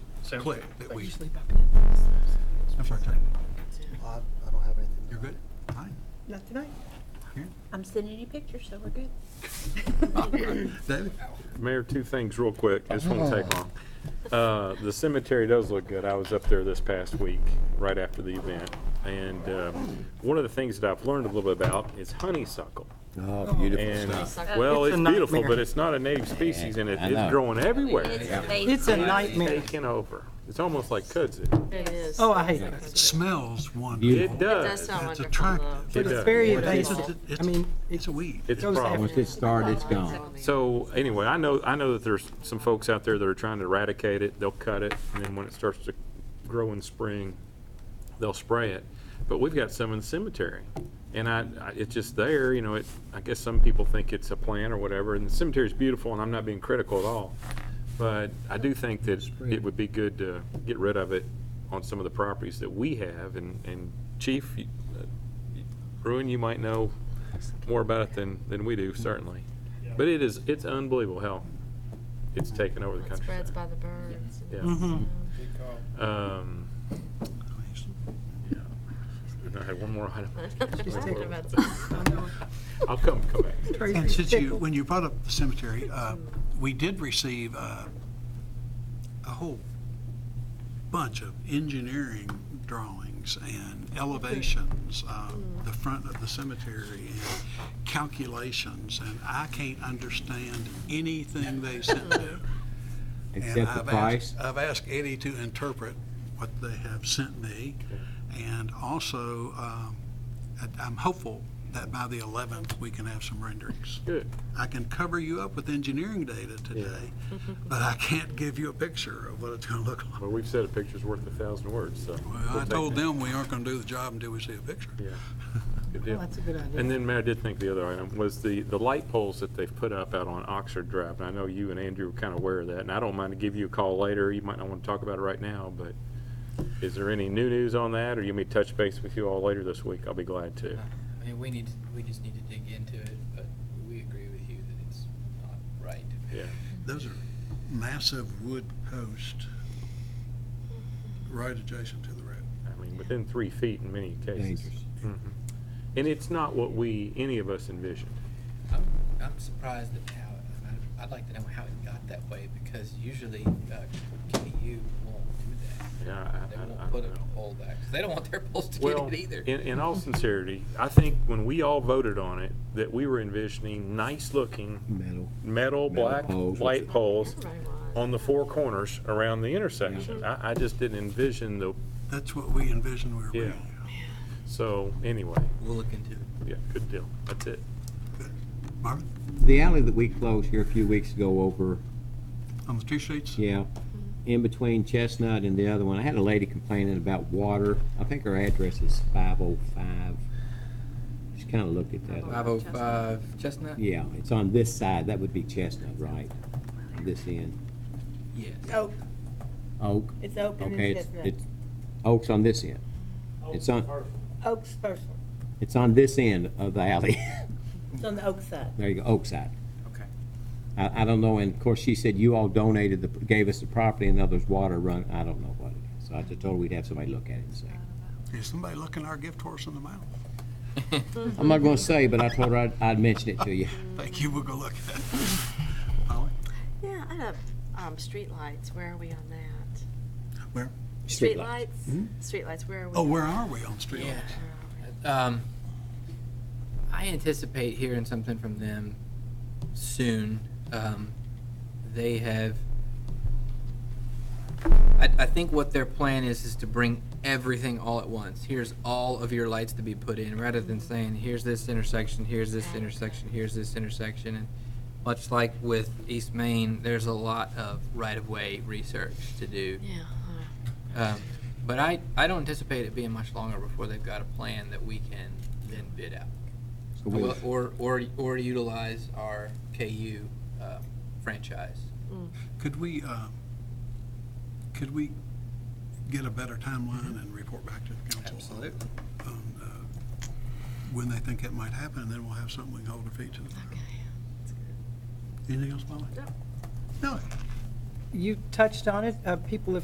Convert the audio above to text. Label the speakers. Speaker 1: Sounds
Speaker 2: play
Speaker 1: good.
Speaker 2: that
Speaker 1: Thank
Speaker 2: we,
Speaker 1: you.
Speaker 2: I'm sorry, Clay.
Speaker 3: I, I don't have anything.
Speaker 2: You're good? Fine.
Speaker 4: Not tonight.
Speaker 2: Karen?
Speaker 4: I'm sending you pictures, so we're good.
Speaker 2: David?
Speaker 5: Mayor, two things real quick. This won't take long. Uh, The cemetery does look good. I was up there this past week, right after the event. And um, one of the things that I've learned a little bit about is honeysuckle.
Speaker 6: Oh, beautiful
Speaker 5: And,
Speaker 6: stuff.
Speaker 7: Uh,
Speaker 5: well,
Speaker 8: It's a
Speaker 5: it's beautiful,
Speaker 8: nightmare.
Speaker 5: but it's not a native species and it-
Speaker 6: I know.
Speaker 5: it's growing
Speaker 4: It's
Speaker 5: everywhere.
Speaker 4: amazing.
Speaker 8: It's a nightmare.
Speaker 5: Taking over. It's almost like kudzu.
Speaker 7: It is.
Speaker 8: Oh, I hate it.
Speaker 2: Smells
Speaker 6: Beautiful.
Speaker 2: wonderful.
Speaker 5: It does.
Speaker 7: does sound
Speaker 2: It's
Speaker 7: wonderful,
Speaker 2: attractive.
Speaker 7: though.
Speaker 5: It
Speaker 8: But it's
Speaker 5: does.
Speaker 8: very
Speaker 2: But it's-
Speaker 8: invasive.
Speaker 2: it's-
Speaker 8: I mean, it
Speaker 2: It's a weed.
Speaker 5: It's a
Speaker 8: goes
Speaker 5: problem.
Speaker 8: after.
Speaker 6: Once it starts, it's gone.
Speaker 5: So anyway, I know, I know that there's some folks out there that are trying to eradicate it. They'll cut it and then when it starts to grow in spring, they'll spray it. But we've got some in the cemetery. And I, I, it's just there, you know, it, I guess some people think it's a plant or whatever and the cemetery's beautiful and I'm not being critical at all. But I do think that it would be good to get rid of it on some of the properties that we have and, and Chief, you- uh, Bruin, you might know more about it than, than we do, certainly. But it is, it's unbelievable how it's taken over the
Speaker 7: It spreads
Speaker 5: countryside.
Speaker 7: by the birds. Mm-hmm.
Speaker 5: Yeah.
Speaker 8: Mhm.
Speaker 5: Um, and I had one more item.
Speaker 8: She's taking
Speaker 5: I'll come, come back.
Speaker 8: Tracy's
Speaker 2: And since you,
Speaker 8: tickled.
Speaker 2: when you brought up the cemetery, uh, we did receive uh, a whole bunch of engineering drawings and elevations of the front of the cemetery and calculations, and I can't understand anything they sent me. And
Speaker 6: Except the
Speaker 2: I've asked,
Speaker 6: price.
Speaker 2: I've asked Eddie to interpret what they have sent me, and also, um, I- I'm hopeful that by the 11th, we can have some renderings.
Speaker 5: Good.
Speaker 2: I can cover you up with engineering data today, but I can't give you a picture of what it's going to look like.
Speaker 5: Well, we've said a picture's worth a thousand words, so.
Speaker 2: Well,
Speaker 5: we'll
Speaker 2: I
Speaker 5: take
Speaker 2: told
Speaker 5: that.
Speaker 2: them we aren't going to do the job until we see a picture.
Speaker 5: Yeah. Good
Speaker 8: Oh,
Speaker 5: deal.
Speaker 8: That's a good idea.
Speaker 5: And then, Mayor, I did think the other item was the, the light poles that they've put up out on Oxford Drive. And I know you and Andrew were kind of aware of that, and I don't mind to give you a call later. You might not want to talk about it right now, but is there any new news on that, or you may touch base with you all later this week? I'll be glad to.
Speaker 2: Uh-huh.
Speaker 9: I mean, we need, to- we just need to dig into it, but we agree with you that it's not right.
Speaker 5: Yeah.
Speaker 2: Those are massive wood posts right adjacent to the road.
Speaker 5: I mean, within three feet in many cases.
Speaker 6: Dangerous.
Speaker 5: Mhm. And it's not what we, any of us envisioned.
Speaker 9: I'm, I'm surprised at how, I- I'd like to know how it got that way, because usually, uh, KU won't do that.
Speaker 5: Yeah, I-
Speaker 9: They
Speaker 5: I- I
Speaker 9: won't put
Speaker 5: don't
Speaker 9: a
Speaker 5: know.
Speaker 9: pole back, 'cause they don't want their poles to get
Speaker 5: Well,
Speaker 9: it either.
Speaker 5: in, in all sincerity, I think when we all voted on it, that we were envisioning nice-looking
Speaker 6: Metal.
Speaker 5: metal,
Speaker 6: Metal
Speaker 5: black,
Speaker 6: poles.
Speaker 5: light poles
Speaker 7: Everybody was.
Speaker 5: on the four corners around the intersection. I, I just didn't envision the,
Speaker 2: That's what we envisioned we were
Speaker 5: Yeah.
Speaker 2: building.
Speaker 5: so, anyway,
Speaker 9: We'll look into it.
Speaker 5: yeah, good deal. That's it.
Speaker 2: Marvin,
Speaker 6: The alley that we closed here a few weeks ago over,
Speaker 2: on the two sheets?
Speaker 6: yeah, in between Chestnut and the other one, I had a lady complaining about water. I think her address is five oh five. Just kinda looked at that.
Speaker 3: Five oh five Chestnut?
Speaker 6: Yeah, it's on this side. That would be Chestnut, right? This end.
Speaker 9: Yes.
Speaker 4: Oak,
Speaker 6: Oak.
Speaker 4: it's open
Speaker 6: Okay,
Speaker 4: and
Speaker 6: it's,
Speaker 4: chestnut.
Speaker 6: it's, Oak's on this end. It's on,
Speaker 4: Oak's first,
Speaker 6: it's on this end of the alley.
Speaker 4: it's on the oak side.
Speaker 6: There you go, Oak side.
Speaker 3: Okay.
Speaker 6: I, I don't know, and of course, she said you all donated the, gave us the property and now there's water run, I don't know what it is. So I just told her we'd have somebody look at it and say.
Speaker 2: Is somebody looking our gift horse in the mouth?
Speaker 6: I'm not gonna say, but I told her I'd, I'd mention it to you.
Speaker 2: Thank you, we'll go look at it. Polly?
Speaker 7: Yeah, I know. Um, streetlights, where are we on that?
Speaker 2: Where?
Speaker 6: Streetlights.
Speaker 7: Streetlights, streetlights, where are we?
Speaker 2: Oh,
Speaker 7: on
Speaker 2: where
Speaker 7: that?
Speaker 2: are we on street?
Speaker 9: Yeah.
Speaker 7: Where are we?
Speaker 9: Um, I anticipate hearing something from them soon. Um, they have. I, I think what their plan is is to bring everything all at once. Here's all of your lights to be put in, rather than saying here's this intersection, here's this intersection, here's this intersection, and much like with East Main, there's a lot of right of way research to do.
Speaker 7: Yeah. uh,
Speaker 9: Um, But I, I don't anticipate it being much longer before they've got a plan that we can then bid out.
Speaker 6: So we'll-
Speaker 9: Or, or- or, or utilize our KU uh, franchise.
Speaker 2: Could we, uh, could we get a better timeline and report back to the council?
Speaker 9: Absolutely.
Speaker 2: on, uh, When they think that might happen, and then we'll have something we can hold our feet to. the fire.
Speaker 7: Okay. That's good.
Speaker 2: Anything else, Molly?
Speaker 7: No.
Speaker 2: No.
Speaker 8: You touched on it, uh, people have